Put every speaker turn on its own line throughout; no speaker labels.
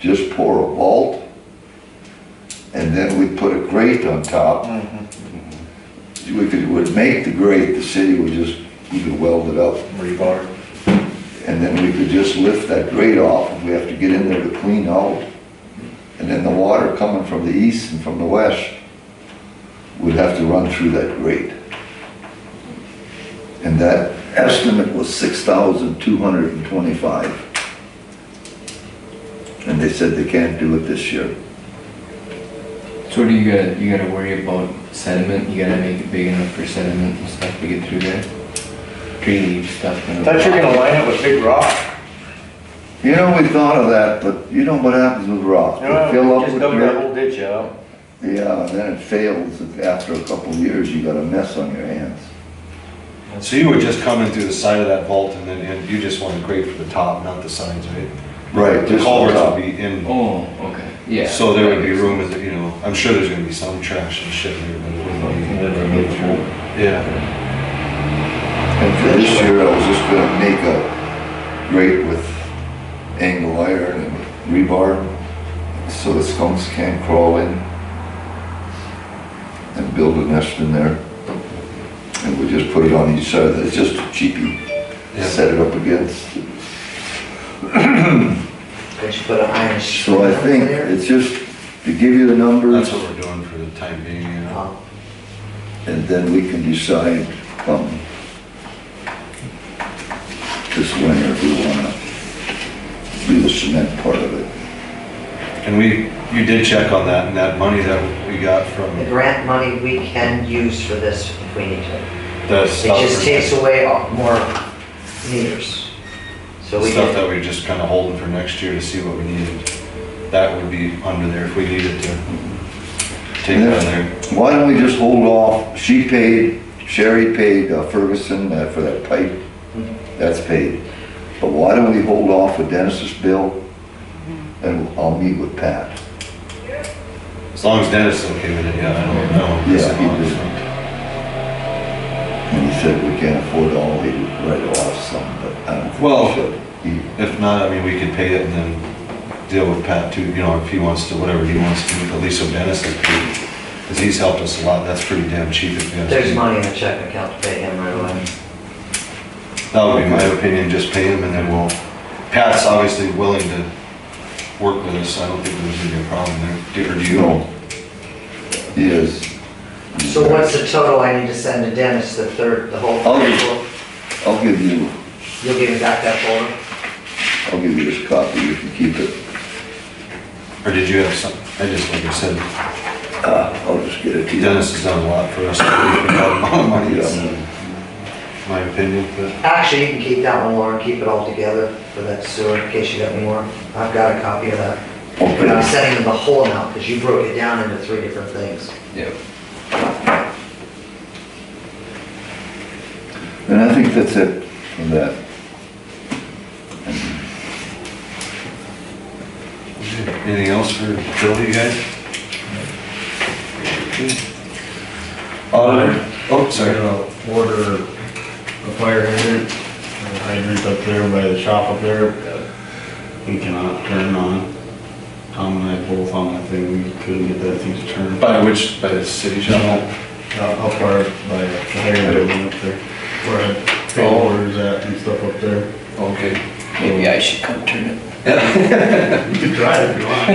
just pour a vault, and then we put a grate on top. We could, would make the grate, the city would just, you could weld it up,
rebar.
and then we could just lift that grate off, and we have to get in there to clean out. And then the water coming from the east and from the west would have to run through that grate. And that estimate was six thousand two hundred and twenty-five. And they said they can't do it this year.
So do you gotta, you gotta worry about sediment, you gotta make it big enough for sediment and stuff to get through there? Tree leaf stuff. and-
Thought you were gonna line up with big rock.
You know, we thought of that, but you know what happens with rock?
You know,
They fill up
Just
with
dug that
dirt.
whole ditch out.
Yeah, and then it fails. After a couple of years, you got a mess on your hands.
So you were just coming through the side of that vault and then, and you just want to grate for the top, not the sides, right?
Right,
The
just
culverts
on
would be in,
Oh, okay, yeah.
so there would be room, in the- you know, I'm sure there's gonna be some trash and shit there, but it wouldn't be. Yeah,
And for this year, I was just gonna make a grate with angle iron and rebar, so the skunks can't crawl in. And build a nest in there. And we just put it on each side, it's just a cheapie,
yeah.
set it up against.
They should put an iron sheet
So I
up
think
there.
it's just to give you the numbers,
That's what we're doing for the time being, you know.
Um,
and then we can decide, um, this winter, if we wanna do the cement part of it.
And we, you did check on that and that money that we got from
The grant money we can use for this if we need to.
the
It
Oh,
stuff.
just takes away all- more meters. So we
Stuff
can,
that we're just kind of holding for next year to see what we needed. That would be under there if we needed to. Take it out of there.
Why don't we just hold off, she paid, Sherry paid uh, Ferguson uh, for that pipe, that's paid. But why don't we hold off with Dennis's bill? And I'll meet with Pat.
As long as Dennis is okay with it, yeah, I don't know.
Yeah, he did. And he said we can't afford all, he would write off some, but I don't think
Well-
we should. He-
If not, I mean, we could pay it and then deal with Pat too, you know, if he wants to, whatever he wants to do, but at least so Dennis is paid. Because he's helped us a lot, that's pretty damn cheap if you ask
there's
me.
money in the check account to pay him right away.
That would be my opinion, just pay him and then we'll, Pat's obviously willing to work with us, I don't think there's gonna be a problem there. Do- Or do you?
No. He is.
So what's the total I need to send to Dennis, the third, the whole?
I'll give- I'll give you,
You'll give me back that folder?
I'll give you this copy, you can keep it.
Or did you have some, I just, like I said,
Uh, I'll just get it to you.
Dennis has done a lot for us, we got a lot of money, it's, uh, my opinion, but.
Actually, you can keep that one, Lauren, keep it all together for that sewer, in case you got any more. I've got a copy of that. But I'm
Okay.
sending them the whole amount, because you broke it down into three different things.
Yep.
And I think that's it for that.
Anything else for Joe, you guys? Auditor, oh,
They're
sorry.
gonna order uh, a fire hydrant, a hydrant up there by the shop up there. that We cannot turn on. Tom and I both on that thing, we couldn't get that thing to turn.
By which, by the city shop?
Uh, Up far by the hydrant building up there, where I pay
Oh.
orders at and stuff up there.
Okay.
Maybe I should come turn it.
You can try it if you want.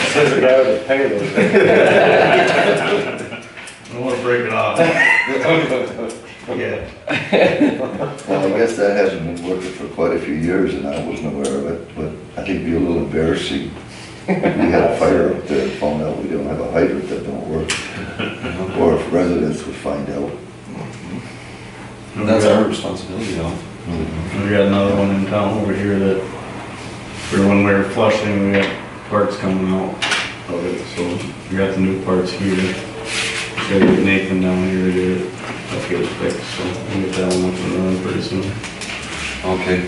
Says the guy with the payload.
I don't wanna break it off. Yeah.
Well, I guess that hasn't been working for quite a few years and I wasn't aware of it, but I think it'd be a little embarrassing. We had a fire up there and found out we don't have a hydrant that don't work. Or if residents would find out.
That's our responsibility though.
We got another one in town over here that, for when we were flushing, we got parts coming out of it, so we got the new parts here. Gotta get Nathan down here to get it, I'll get it fixed, so we'll get that one up and running pretty soon.
Okay.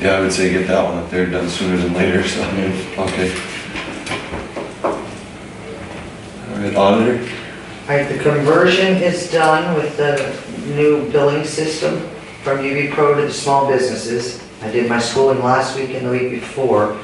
Yeah, I would say get that one up there done sooner than later, so, okay. All right, auditor?
All right, the conversion is done with the new billing system from UB Pro to the small businesses. I did my schooling last week and the week before.